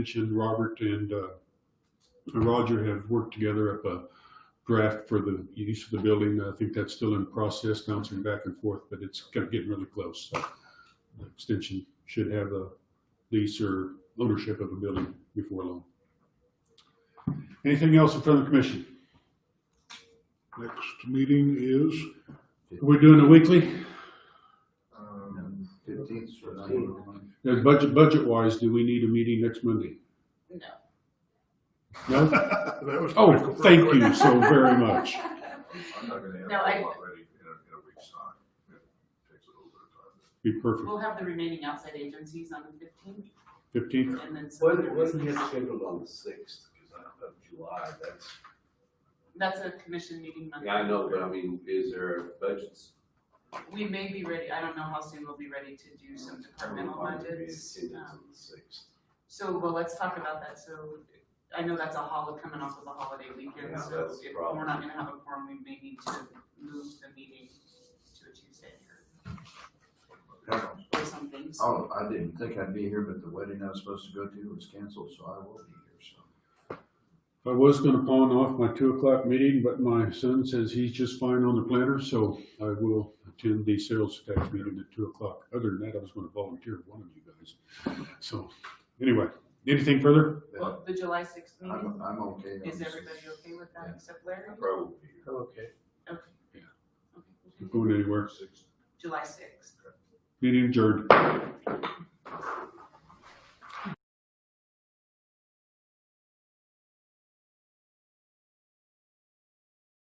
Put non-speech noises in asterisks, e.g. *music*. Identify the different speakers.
Speaker 1: mentioned, Robert and uh, Roger have worked together up a draft for the use of the building. I think that's still in process, bouncing back and forth, but it's kind of getting really close. So the Extension should have a lease or ownership of a building before long. Anything else in front of the commission?
Speaker 2: Next meeting is,
Speaker 1: We're doing a weekly,
Speaker 3: Fifteenth,
Speaker 1: Now, budget, budget wise, do we need a meeting next Monday? No. No?
Speaker 2: *laughs* that was. pretty
Speaker 1: Oh,
Speaker 2: quick.
Speaker 1: thank you so very much.
Speaker 3: I'm not gonna have
Speaker 4: No, I-
Speaker 3: it all ready in a, in a week's time. It takes a little bit of time.
Speaker 1: Be perfect.
Speaker 4: We'll have the remaining outside agencies on the fifteenth
Speaker 1: Fifteenth,
Speaker 4: and then some
Speaker 5: When,
Speaker 4: other
Speaker 5: when do you
Speaker 4: business.
Speaker 5: have scheduled on the sixth, because I of July, that's,
Speaker 4: That's a commission meeting Monday.
Speaker 5: yeah, I know, but I mean, is there a budget?
Speaker 4: We may be ready, I don't know how soon we'll be ready to do some departmental budgets.
Speaker 5: Attendance on
Speaker 4: um,
Speaker 5: the sixth.
Speaker 4: So, well, let's talk about that, so I know that's a holiday, coming off of a holiday
Speaker 5: Yeah,
Speaker 4: weekend, so
Speaker 5: that's
Speaker 4: if
Speaker 5: the
Speaker 4: we're
Speaker 5: problem.
Speaker 4: not gonna have a forum, we may need to move the meeting to a Tuesday or- or something, so.
Speaker 3: Oh, I didn't think I'd be here, but the wedding I was supposed to go to was canceled, so I will be here, so.
Speaker 1: I was gonna pawn off my two o'clock meeting, but my son says he's just fine on the planner, so I will attend the sales tax meeting at two o'clock. Other than that, I was gonna volunteer for one of you guys. So, anyway, anything further?
Speaker 3: Yeah,
Speaker 4: Well, the July sixth meeting,
Speaker 3: I'm, I'm okay. I'm
Speaker 4: is
Speaker 3: just-
Speaker 4: everybody okay with that
Speaker 3: Yeah.
Speaker 4: except Larry?
Speaker 5: Probably.
Speaker 6: Okay.
Speaker 4: Okay.
Speaker 1: Yeah.
Speaker 4: Okay.
Speaker 1: Not Going anywhere?
Speaker 4: July sixth.
Speaker 1: Meeting adjourned.